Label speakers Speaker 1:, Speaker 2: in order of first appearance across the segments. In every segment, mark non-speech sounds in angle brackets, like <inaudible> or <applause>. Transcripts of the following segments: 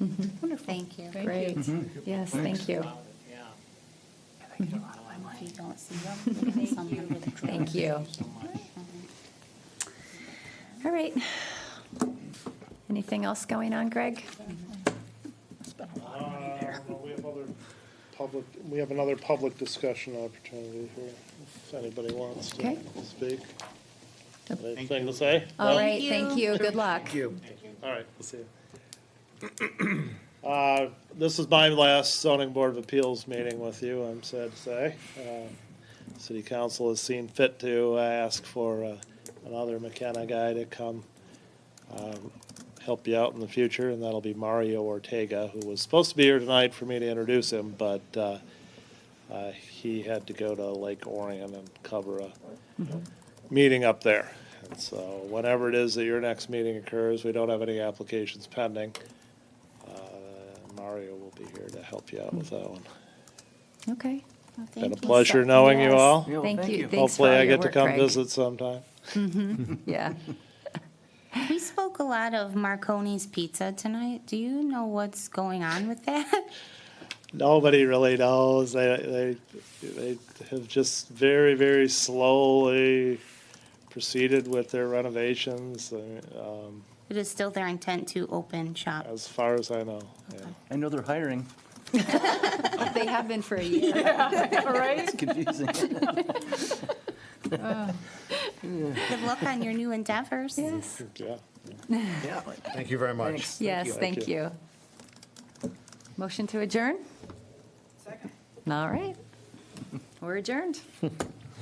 Speaker 1: Wonderful. Thank you.
Speaker 2: Great. Mm-hmm. Yes, thank you.
Speaker 3: Yeah.
Speaker 1: If you don't see them, maybe someone will draw.
Speaker 2: Thank you. All right. Anything else going on, Greg?
Speaker 4: Uh, well, We have other public, we have another public discussion opportunity here, if anybody wants to
Speaker 2: Okay.
Speaker 4: speak. Anything to say?
Speaker 2: All
Speaker 4: No?
Speaker 2: right, thank you. Good luck.
Speaker 4: All right, we'll see you. <clears throat> Uh, This is my last zoning board of appeals meeting with you, I'm sad to say. Uh, City council has seen fit to ask for uh, another McKenna guy to come um, help you out in the future, and that'll be Mario Ortega, who was supposed to be here tonight for me to introduce him, but uh, uh, he had to go to Lake Orion and cover a meeting up there. And so whenever it is that your next meeting occurs, we don't have any applications pending. Uh, Mario will be here to help you out with that one.
Speaker 2: Okay.
Speaker 1: Well, thank
Speaker 4: Been a
Speaker 1: you so-
Speaker 4: pleasure knowing
Speaker 2: Yes.
Speaker 4: you all.
Speaker 5: Yeah, well,
Speaker 2: Thank
Speaker 5: thank
Speaker 2: you.
Speaker 5: you.
Speaker 2: Thanks for
Speaker 4: Hopefully
Speaker 2: all
Speaker 4: I
Speaker 2: your
Speaker 4: get to
Speaker 2: work,
Speaker 4: come
Speaker 2: Greg.
Speaker 4: visit sometime.
Speaker 2: <laughs> Yeah.
Speaker 1: We spoke a lot of Marconi's Pizza tonight. Do you know what's going on with that? <laughs>
Speaker 4: Nobody really knows. They, they, they have just very, very slowly proceeded with their renovations, uh, um,
Speaker 1: It is still their intent to open shop.
Speaker 4: as far as I know. yeah.
Speaker 5: I know they're hiring.
Speaker 2: They have been <laughs> for a year.
Speaker 5: It's confusing.
Speaker 1: Good luck on your new
Speaker 2: <laughs>
Speaker 1: endeavors.
Speaker 2: Yes.
Speaker 4: Yeah. <laughs>
Speaker 6: Yeah, thank you very much.
Speaker 5: Thanks.
Speaker 2: Yes, thank
Speaker 4: Thank you.
Speaker 2: you. Motion to adjourn? Second. All right. We're adjourned.
Speaker 7: Do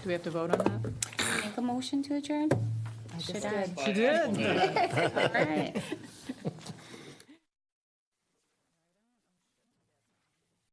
Speaker 7: we have to vote on that?
Speaker 1: Make a motion to adjourn? Should I? <laughs>
Speaker 7: She did.
Speaker 1: All right.